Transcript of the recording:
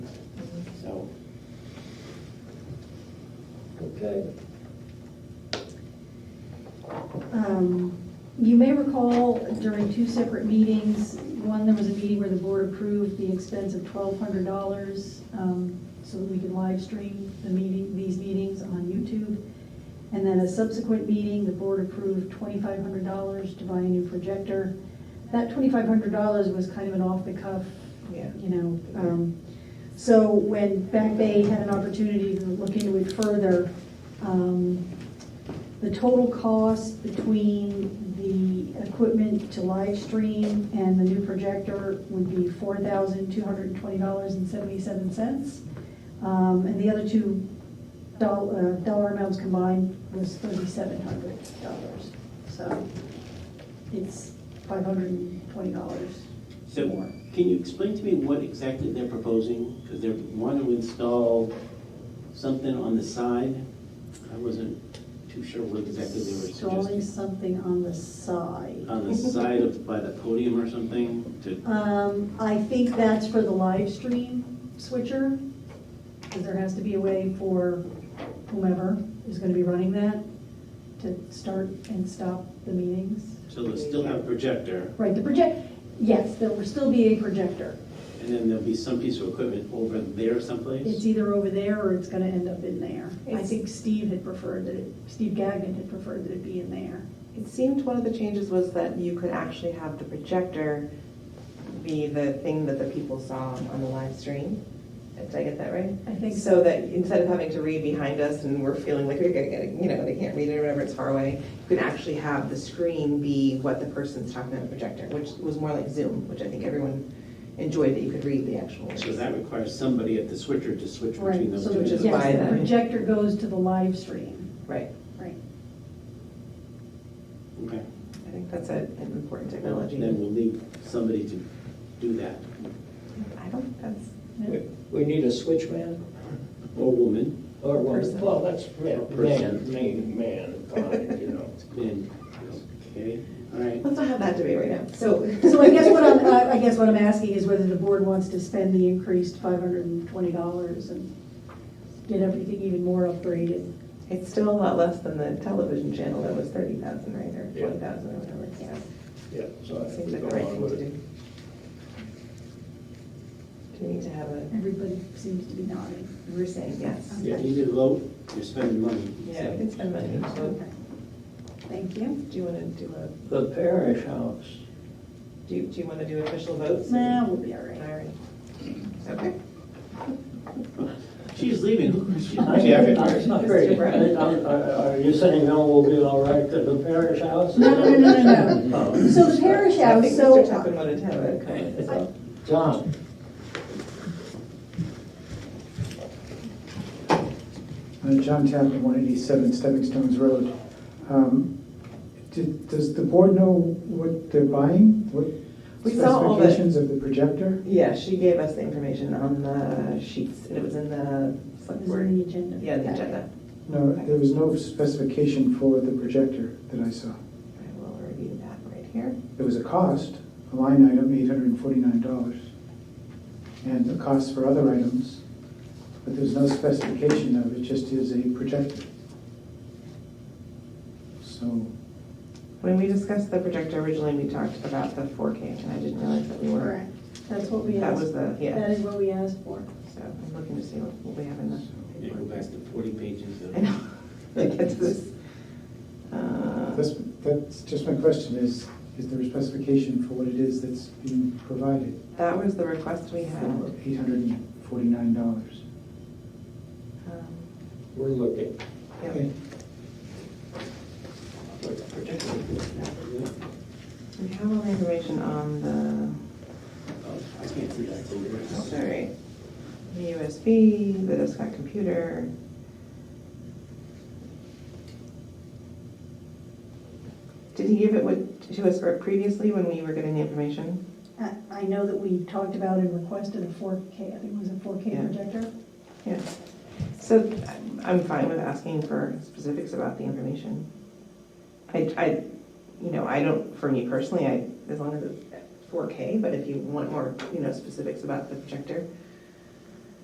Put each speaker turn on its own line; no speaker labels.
Okay.
Um, You may recall during two separate meetings, one, there was a meeting where the board approved the expense of twelve hundred dollars um, so that we could live stream the meeting, these meetings on YouTube. And then a subsequent meeting, the board approved twenty-five hundred dollars to buy a new projector. That twenty-five hundred dollars was kind of an off-the-cuff,
Yeah.
you know. um, So when Back Bay had an opportunity to look into it further, um, the total cost between the equipment to live stream and the new projector would be four thousand two hundred and twenty dollars and seventy-seven cents. Um, and the other two doll- uh, dollar amounts combined was thirty-seven hundred dollars. So it's five hundred and twenty dollars
So,
more.
can you explain to me what exactly they're proposing? Because they're wanting to install something on the side. I wasn't too sure what exactly they were
Installing
suggesting.
something on the side.
On the side of, by the podium or something to,
Um, I think that's for the live stream switcher, because there has to be a way for whomever is gonna be running that to start and stop the meetings.
so they'll still have a projector,
Right, the project, yes, there will still be a projector.
and then there'll be some piece of equipment over there
It's
someplace?
either over there or it's gonna end up in there. I
It's-
think Steve had preferred that it, Steve Gagnon had preferred that it be in there.
It seemed one of the changes was that you could actually have the projector be the thing that the people saw on the live stream. Did I get that right?
I think so.
So that instead of having to read behind us and we're feeling like we're gonna get, it, you know, they can't read it or whatever, it's far away, you can actually have the screen be what the person's talking on the projector, which was more like Zoom, which I think everyone enjoyed that you could read the actual words.
So that requires somebody at the switcher to switch
Right,
between those
so
two.
Which is
yes,
why
the
that-
projector goes to the live stream,
Right,
right.
Okay,
I think that's a- an important technology.
then we'll leave somebody to do that,
I don't, that's,
We- We need a switchman
or woman,
or one?
Person.
Well, that's yeah, man,
Person.
man, man, fine, you know.
and, okay, all right.
let's not have that debate right now. So,
So I guess what I'm, uh, I I guess what I'm asking is whether the board wants to spend the increased five hundred and twenty dollars and get everything even more upgraded.
It's still a lot less than the television channel that was thirty thousand, right, or
Yeah.
twenty thousand or whatever, yeah.
Yeah, so I think
Seems
we
like
go
the right
on
thing
with
to
it.
do. Do we need to have a,
Everybody seems to be nodding.
we're saying yes.
You need to vote, you're spending money.
Yeah, we can spend money, so
Okay. Thank you.
do you wanna do a,
The parish house,
do you, do you wanna do official votes?
Nah, we'll be all
All
right.
right. Okay.
She's leaving. Who is she?
I- I-
Okay.
it's not very-
Mr. Brown.
I- I- Are you saying, no, we'll be all right to the parish house?
No, no, no, no, no,
Oh.
no. So the parish
I
house,
think Mr.
so,
Tappan wanted to have a comment.
John,
Uh, John Chapman, 187 Stepping Stones Road. Um, do- Does the board know what they're buying? What
We saw all the-
specifications of the projector?
Yeah, she gave us the information on the sheets, and it was in the
this
select
is on
board,
the agenda.
yeah, the agenda.
No, there was no specification for the projector that I saw.
I will review that right here.
There was a cost, a line item, $849, and the cost for other items, but there's no specification of it, just is a projector. So,
When we discussed the projector originally, we talked about the 4K, and I didn't realize that we were,
Correct. That's what we
that was
asked.
the, yeah.
That is what we asked for.
So I'm looking to see what what we have in
Yeah, Go
the.
back to forty pages
I
of,
know, to get to this. Uh,
That's, that's just my question is, is there a specification for what it is that's being provided
That was the request we
for
had. Um,
eight hundred and forty-nine dollars?
we're looking.
Um, yeah. We have all the information on the,
oh, I can't see that.
all right, the USB, the desktop computer. Did he give it what- to us previously when we were getting the information?
I, I know that we talked about and requested a four K, I think it was a four K
Yeah.
projector.
Yeah, so I'm- I'm fine with asking for specifics about the information. I, I, you know, I don't, for me personally, I, as long as it's 4K, but if you want more, you know, specifics about the projector,